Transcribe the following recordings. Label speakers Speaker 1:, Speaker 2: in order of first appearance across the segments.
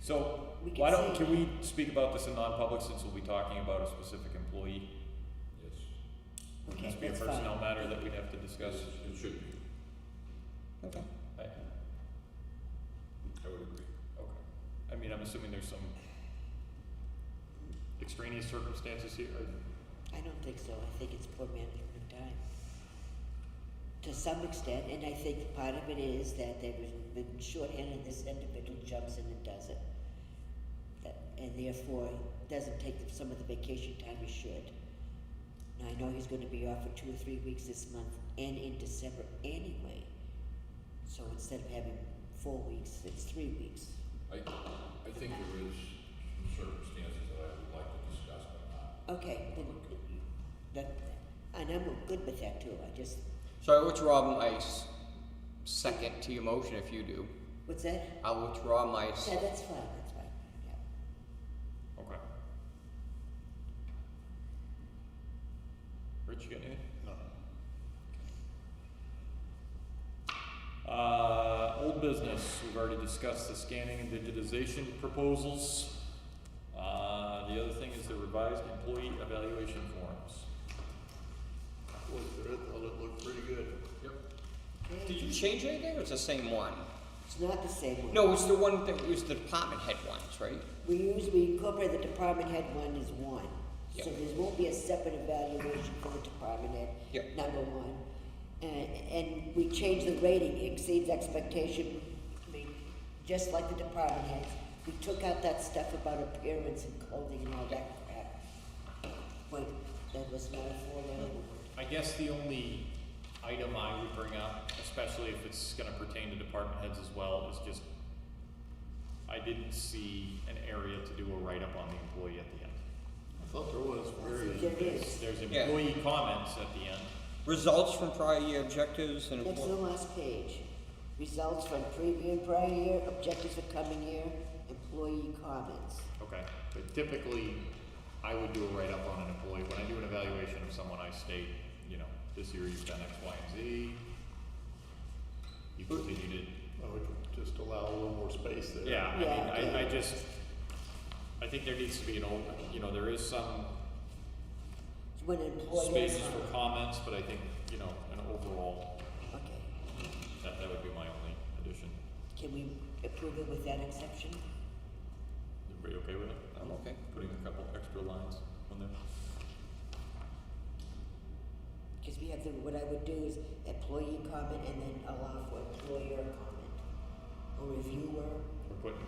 Speaker 1: So,
Speaker 2: We can
Speaker 1: why don't,
Speaker 2: say
Speaker 1: can we speak about this in non-public since we'll be talking about a specific employee?
Speaker 3: Yes,
Speaker 1: Would
Speaker 2: Okay,
Speaker 1: this be a
Speaker 2: that's fine.
Speaker 1: personnel matter that we'd have to
Speaker 3: yes,
Speaker 1: discuss?
Speaker 3: it should be,
Speaker 2: Okay.
Speaker 1: I, okay.
Speaker 3: I would agree.
Speaker 1: I mean, I'm assuming there's some extraneous circumstances here.
Speaker 2: I don't think so. I think it's poor management of time. To some extent, and I think part of it is that they've been shorthanded, this individual jumps in and does it. That, and therefore doesn't take some of the vacation time he should. Now, I know he's gonna be off for two or three weeks this month and in December anyway. So instead of having four weeks, it's three weeks.
Speaker 3: I, I think there is some circumstances that I would like to discuss, but not.
Speaker 2: Okay, then, that, and I'm good with that too, I just,
Speaker 4: So I withdraw my s- second to your motion if you do.
Speaker 2: what's that?
Speaker 4: I'll withdraw my. s-
Speaker 2: Yeah, that's fine, that's fine, yeah.
Speaker 1: Okay. Rich, you got anything? No. Uh, old business, we've already discussed the scanning and digitization proposals. Uh, the other thing is the revised employee evaluation forms.
Speaker 5: Looked at it, thought it looked pretty good.
Speaker 3: Yep.
Speaker 4: Did you change anything or it's the same one?
Speaker 2: It's not the same one.
Speaker 4: No, it's the one that was the department head ones, right?
Speaker 2: We use, we incorporate the department head one is one. So
Speaker 4: Yeah.
Speaker 2: there won't be a separate evaluation for the department
Speaker 4: Yeah.
Speaker 2: head, number one. And, and we change the rating, exceeds expectation, I mean, just like the department heads. We took out that stuff about appearance and clothing and all that crap. But that was not a
Speaker 4: Mm.
Speaker 2: four-letter word.
Speaker 1: I guess the only item I would bring up, especially if it's gonna pertain to department heads as well, is just I didn't see an area to do a write-up on the employee at the end.
Speaker 5: I thought there was very.
Speaker 2: There is.
Speaker 1: There's
Speaker 4: Yeah.
Speaker 1: employee comments at the end.
Speaker 4: Results from prior year objectives and.
Speaker 2: That's the last page. Results from previous prior year, objectives for coming year, employee comments.
Speaker 1: Okay, but typically, I would do a write-up on an employee, when I do an evaluation of someone, I state, you know, this year you've done X, Y, and Z. You continued it,
Speaker 5: I would just allow a little more space there.
Speaker 1: Yeah, I
Speaker 2: Yeah,
Speaker 1: mean, I, I
Speaker 2: yeah.
Speaker 1: just, I think there needs to be an old, you know, there is some
Speaker 2: When an employee.
Speaker 1: spaces for comments, but I think, you know, an overall,
Speaker 2: Okay,
Speaker 1: that, that would be my only addition.
Speaker 2: can we approve it with that exception?
Speaker 1: Everybody okay with it?
Speaker 4: I'm okay.
Speaker 1: Putting a couple extra lines on there?
Speaker 2: Because we have the, what I would do is employee comment and then allow for employer comment. Or reviewer,
Speaker 1: We're putting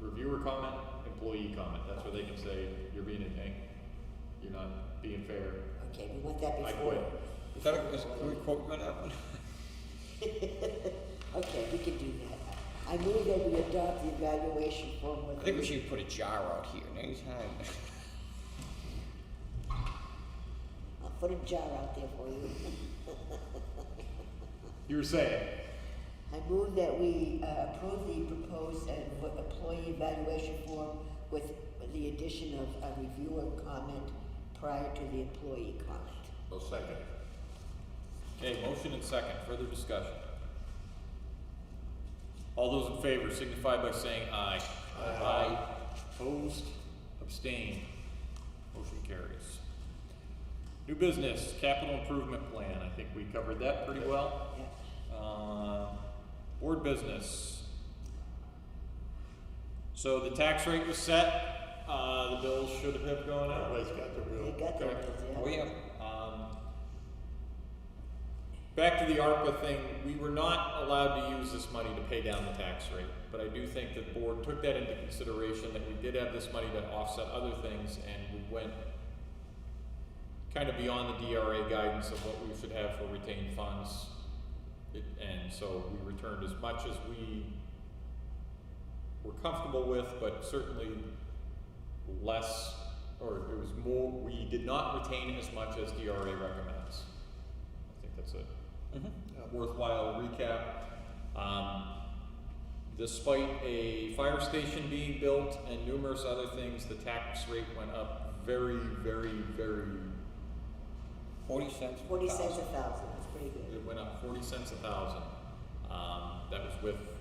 Speaker 1: reviewer comment, employee comment, that's where they can say, you're being a tank, you're not being fair.
Speaker 2: okay, we want that
Speaker 1: I
Speaker 2: before.
Speaker 1: quit.
Speaker 4: Is that a, is, can we quote you on that one?
Speaker 2: Okay, we can do that. I move that we adopt the evaluation form with.
Speaker 4: I think we
Speaker 2: the-
Speaker 4: should put a jar out here next time.
Speaker 2: I'll Uh, put a jar out there for you.
Speaker 1: You were saying?
Speaker 2: I move that we uh, approve the proposed uh, vo- employee evaluation form with the addition of a reviewer comment prior to the employee comment.
Speaker 3: Well, second,
Speaker 1: Okay, motion and second, further discussion. All those in favor signify by saying aye. Aye. Opposed, abstained, motion carries. New business, capital improvement plan, I think we covered that pretty well.
Speaker 2: Yeah.
Speaker 1: Uh, board business. So the tax rate was set, uh, the bills should have gone out.
Speaker 5: Everybody's got their
Speaker 2: They
Speaker 5: bill.
Speaker 2: got their
Speaker 1: Okay.
Speaker 2: bills,
Speaker 4: We
Speaker 2: yeah.
Speaker 4: have,
Speaker 1: Um, back to the ARPA thing, we were not allowed to use this money to pay down the tax rate, but I do think that the board took that into consideration, that we did have this money to offset other things, and we went kind of beyond the DRA guidance of what we should have for retained funds. It, and so we returned as much as we were comfortable with, but certainly less, or it was more, we did not retain as much as DRA recommends. I think that's a
Speaker 4: mhm.
Speaker 1: worthwhile recap. Um, despite a fire station being built and numerous other things, the tax rate went up very, very, very
Speaker 4: forty cents. per
Speaker 2: Forty cents
Speaker 4: thousand.
Speaker 2: a thousand, that's pretty good.
Speaker 1: it went up forty cents a thousand. Um, that was with